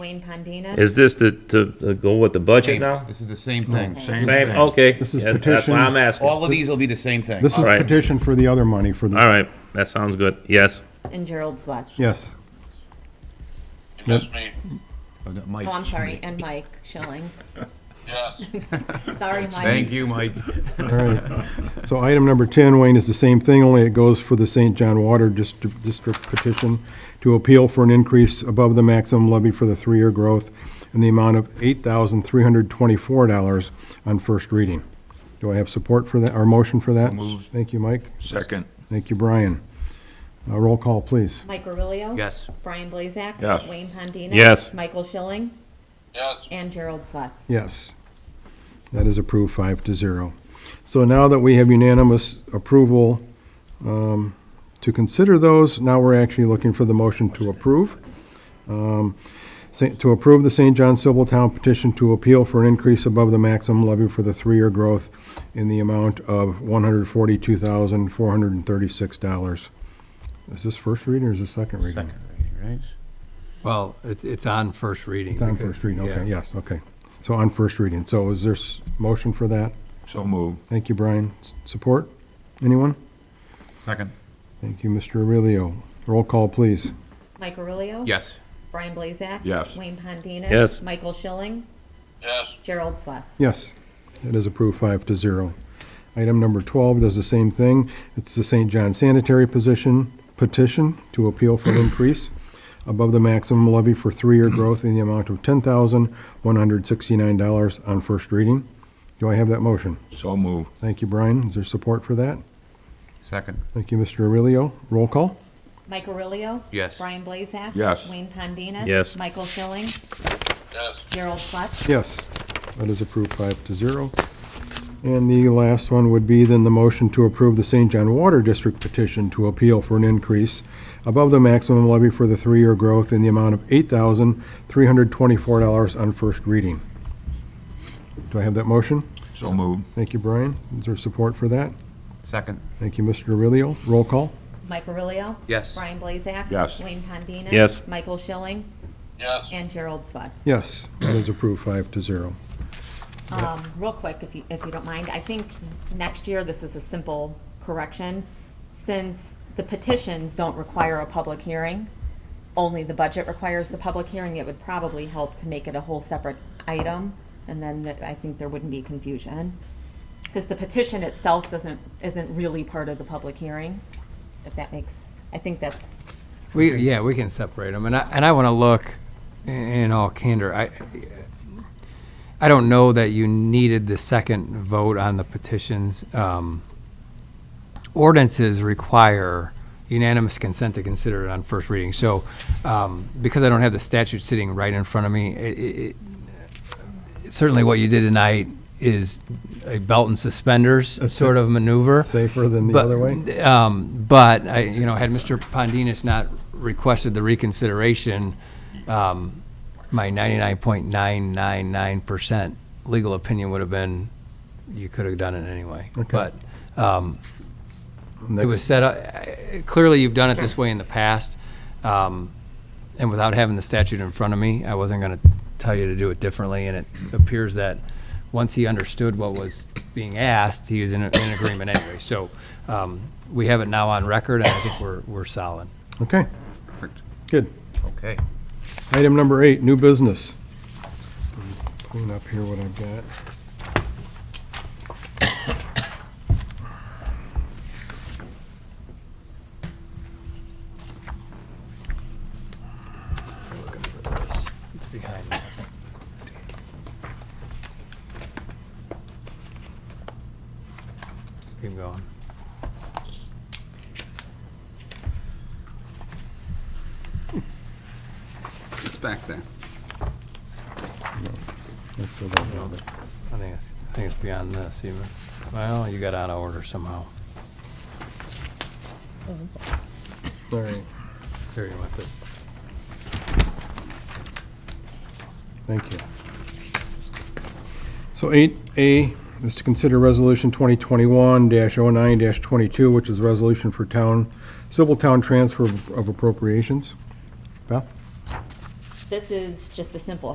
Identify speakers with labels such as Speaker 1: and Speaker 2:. Speaker 1: Wayne Pandina.
Speaker 2: Is this to, to to go with the budget now?
Speaker 3: This is the same thing.
Speaker 4: Same
Speaker 2: Same,
Speaker 4: thing.
Speaker 2: okay.
Speaker 5: This is
Speaker 2: That's- That's
Speaker 5: petition.
Speaker 2: why I'm asking. All
Speaker 3: All of these will be the same thing.
Speaker 5: This is
Speaker 2: Alright.
Speaker 5: petition for the other money for the,
Speaker 2: right, that sounds good. Yes.
Speaker 1: And Gerald Swatch.
Speaker 5: yes.
Speaker 6: Yes, me.
Speaker 4: Oh, no, Mike.
Speaker 1: Oh, I'm sorry, and Mike Schilling.
Speaker 6: Yes.
Speaker 1: Sorry, Mike.
Speaker 4: Thank you, Mike.
Speaker 5: All right. So item number 10, Wayne, is the same thing, only it goes for the St. John Water Dist- District petition to appeal for an increase above the maximum levy for the three-year growth in the amount of $8,324 on first reading. Do I have support for that, or motion for that? Thank you, Mike.
Speaker 4: Second.
Speaker 5: Thank you, Brian. Uh, Roll call, please.
Speaker 1: Mike Aurelio.
Speaker 4: Yes.
Speaker 1: Brian Blazak.
Speaker 4: Yes.
Speaker 1: Wayne Pandina.
Speaker 2: Yes.
Speaker 1: Michael Schilling
Speaker 6: Yes.
Speaker 1: and Gerald Swatch.
Speaker 5: Yes. That is approved five to zero. So now that we have unanimous approval um, to consider those, now we're actually looking for the motion to approve. Um, sa- To approve the St. John Civil Town petition to appeal for an increase above the maximum levy for the three-year growth in the amount of $142,436. Is this first reading or is this second reading?
Speaker 7: Well, it's, it's on first reading.
Speaker 5: It's on first reading, okay,
Speaker 7: Yeah.
Speaker 5: yes, okay. So on first reading, so is there s- motion for that?
Speaker 4: So move.
Speaker 5: Thank you, Brian. S- Support? Anyone?
Speaker 3: Second.
Speaker 5: Thank you, Mr. Aurelio. Roll call, please.
Speaker 1: Mike Aurelio.
Speaker 3: Yes.
Speaker 1: Brian Blazak.
Speaker 4: Yes.
Speaker 1: Wayne Pandina.
Speaker 2: Yes.
Speaker 1: Michael Schilling.
Speaker 6: Yes.
Speaker 1: Gerald Swatch.
Speaker 5: Yes, it is approved five to zero. Item number 12 does the same thing. It's the St. John Sanitary Position petition to appeal for an increase above the maximum levy for three-year growth in the amount of $10,169 on first reading. Do I have that motion?
Speaker 4: So move.
Speaker 5: Thank you, Brian. Is there support for that?
Speaker 3: Second.
Speaker 5: Thank you, Mr. Aurelio. Roll call?
Speaker 1: Mike Aurelio.
Speaker 3: Yes.
Speaker 1: Brian Blazak.
Speaker 4: Yes.
Speaker 1: Wayne Pandina.
Speaker 2: Yes.
Speaker 1: Michael Schilling.
Speaker 6: Yes.
Speaker 1: Gerald Swatch.
Speaker 5: Yes, that is approved five to zero. And the last one would be then the motion to approve the St. John Water District petition to appeal for an increase above the maximum levy for the three-year growth in the amount of eight thousand, three hundred twenty-four dollars on first reading. Do I have that motion?
Speaker 4: So move.
Speaker 5: Thank you, Brian. Is there support for that?
Speaker 3: Second.
Speaker 5: Thank you, Mr. Aurelio. Roll call?
Speaker 1: Mike Aurelio.
Speaker 3: Yes.
Speaker 1: Brian Blazak.
Speaker 4: Yes.
Speaker 1: Wayne Pandina.
Speaker 2: Yes.
Speaker 1: Michael Schilling
Speaker 6: Yes.
Speaker 1: and Gerald Swatch.
Speaker 5: Yes, that is approved five to zero.
Speaker 1: Um, real quick, if you, if you don't mind, I think next year, this is a simple correction. Since the petitions don't require a public hearing, only the budget requires the public hearing, it would probably help to make it a whole separate item, and then that- I think there wouldn't be confusion. Because the petition itself doesn't, isn't really part of the public hearing, if that makes, I think that's,
Speaker 7: We, yeah, we can separate them. And I, and I want to look i- in all candor. I, I don't know that you needed the second vote on the petitions. Um, ordinances require unanimous consent to consider it on first reading. So, um, because I don't have the statute sitting right in front of me, it, it, it, certainly what you did tonight is a belt and suspenders sort of maneuver.
Speaker 5: Safer than the
Speaker 7: But-
Speaker 5: other way?
Speaker 7: Um, but I, you know, had Mr. Pondinas not requested the reconsideration, um, my ninety-nine point nine nine nine percent legal opinion would have been, you could have done it anyway. But, um, it was
Speaker 5: Next-
Speaker 7: set, up- I- clearly you've done it this way in the past. Um, and without having the statute in front of me, I wasn't gonna tell you to do it differently. And it appears that once he understood what was being asked, he was in, in agreement anyway. So, um, we have it now on record and I think we're, we're solid.
Speaker 5: Okay,
Speaker 3: Perfect.
Speaker 5: good.
Speaker 3: Okay.
Speaker 5: Item number eight, new business. Clean up here what I've got.
Speaker 7: It's behind me. Keep going.
Speaker 8: It's back there.
Speaker 5: Let's go back over.
Speaker 7: I think it's, I think it's beyond this even. Well, you got out of order somehow.
Speaker 5: All right,
Speaker 7: There you went, but
Speaker 5: thank you. So eight A is to consider resolution twenty twenty-one 9 twenty-two, which is a resolution for town, civil town transfer of appropriations. Beth?
Speaker 1: This is just a simple